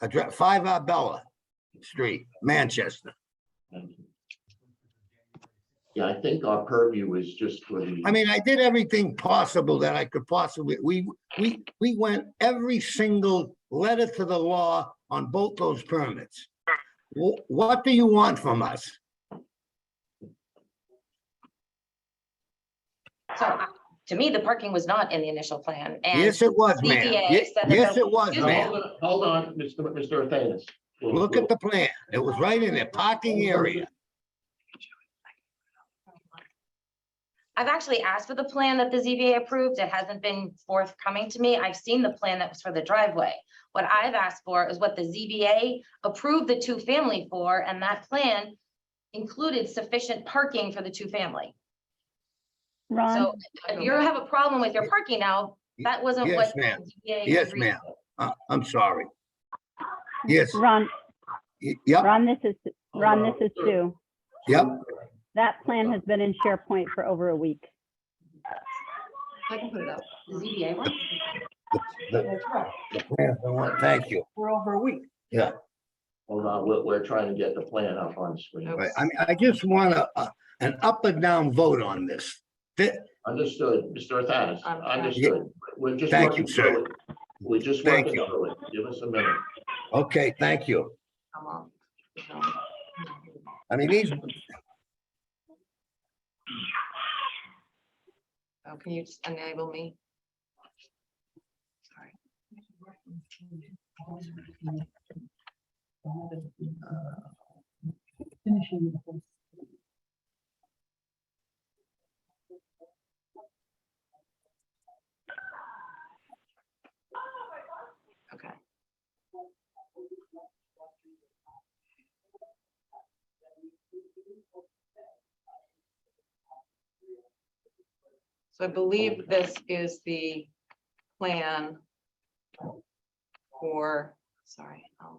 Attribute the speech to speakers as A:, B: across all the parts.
A: address, five Arbella Street, Manchester.
B: Yeah, I think our purview is just for the.
A: I mean, I did everything possible that I could possibly, we, we, we went every single letter to the law on both those permits. Wh- What do you want from us?
C: So uh, to me, the parking was not in the initial plan and
A: Yes, it was, ma'am.
C: ZBA
A: Ye-
C: said that
A: Yes,
C: the-
A: it was,
B: No,
A: ma'am.
B: Hold on, hold on, Mr. Mr. Athanas. We'll-
A: Look
B: we'll-
A: at the plan. It was right in there, parking area.
C: I've actually asked for the plan that the ZBA approved. It hasn't been forthcoming to me. I've seen the plan that was for the driveway. What I've asked for is what the ZBA approved the two-family for, and that plan included sufficient parking for the two-family.
D: Ron,
C: So if you have a problem with your parking now, that wasn't
A: Yes,
C: what.
A: ma'am.
C: ZBA
A: Yes,
C: agreed
A: ma'am.
C: to.
A: Uh, I'm sorry. Yes,
D: Ron,
A: y- yep,
D: Ron, this is,
B: Hold
D: Ron,
B: on.
D: this is Sue.
A: yep.
D: That plan has been in SharePoint for over a week.
C: I can put it up. The ZBA one?
A: The plan, I want- Thank you.
E: We're over a week.
B: Hold on, we're, we're trying to get the plan up on screen.
A: Right, I mean, I just want a, a- an up and down vote on this. Thi-
B: Understood, Mr. Athanas,
E: I'm-
B: Uh, understood. We're just.
A: Thank
B: working
A: you, sir.
B: through it. We're just
A: Thank
B: working
A: you.
B: through it. Give us a minute.
A: Okay, thank you.
E: I'm on.
A: I mean, these,
E: Oh, Can you just enable me? Sorry. Okay. So I believe this is the plan for, sorry. um,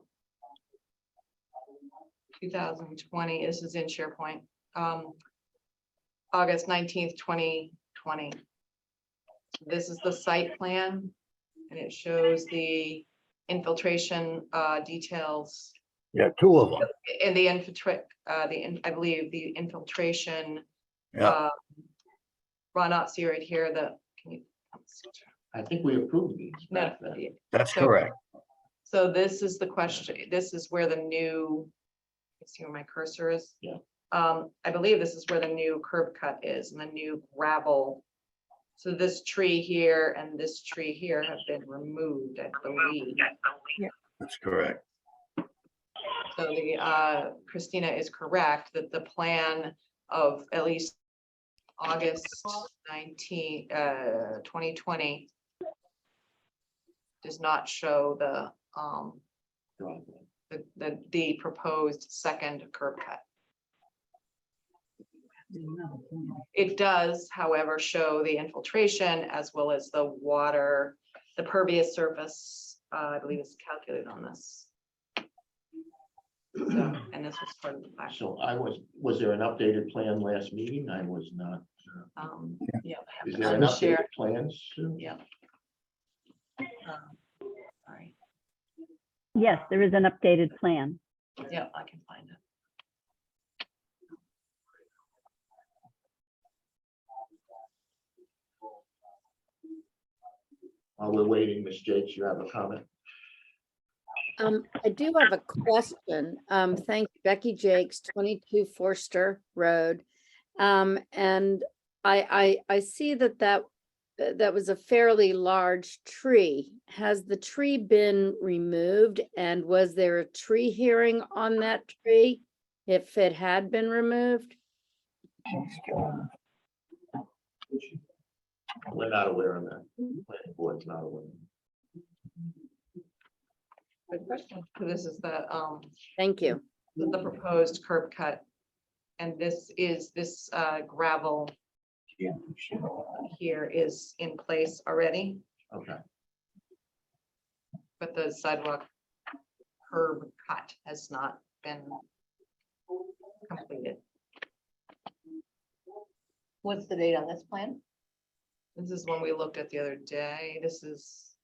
E: 2020, this is in SharePoint, um, August 19th, 2020. This is the site plan, and it shows the infiltration uh, details
A: yeah, two of them.
E: and the infiltrate, uh, the, in- I believe the infiltration.
A: Yeah.
E: uh, Ron Otzi right here, the, can you?
B: I think we approved these.
E: No,
B: back then.
A: That's
E: So-
A: correct.
E: So this is the question, this is where the new, you see where my cursor is?
B: Yeah.
E: Um, I believe this is where the new curb cut is and the new gravel. So this tree here and this tree here have been removed, I believe.
A: That's correct.
E: So the, uh, Christina is correct that the plan of at least August nineteen, uh, twenty twenty does not show the, um,
B: Driveway.
E: the, the, the proposed second curb cut. It does, however, show the infiltration as well as the water, the pervious surface, uh, I believe is calculated on this. So, and this was part of the plan.
B: So I was, was there an updated plan last meeting? I was not. uh,
E: Um, yeah. I
B: Is
D: Uh,
E: have it
B: there
E: on
B: an
E: the share.
B: updated plan? Sue?
E: Yeah. Um, Sorry,
D: Yes, there is an updated plan.
E: yeah, I can find it.
B: While we're waiting, Ms. Jakes, you have a comment?
F: Um, I do have a question. Um, thanks Becky Jakes, twenty-two Forster Road. Um, and I, I, I see that that, that that was a fairly large tree. Has the tree been removed and was there a tree hearing on that tree? If it had been removed?
B: We're not aware of that. Planning board's not aware.
E: Good question. This is the, um,
F: Thank you.
E: the the proposed curb cut. And this is, this uh, gravel here is in place already,
B: Okay,
E: but the sidewalk curb cut has not been completed.
C: What's the date on this plan?
E: This is one we looked at the other day. This is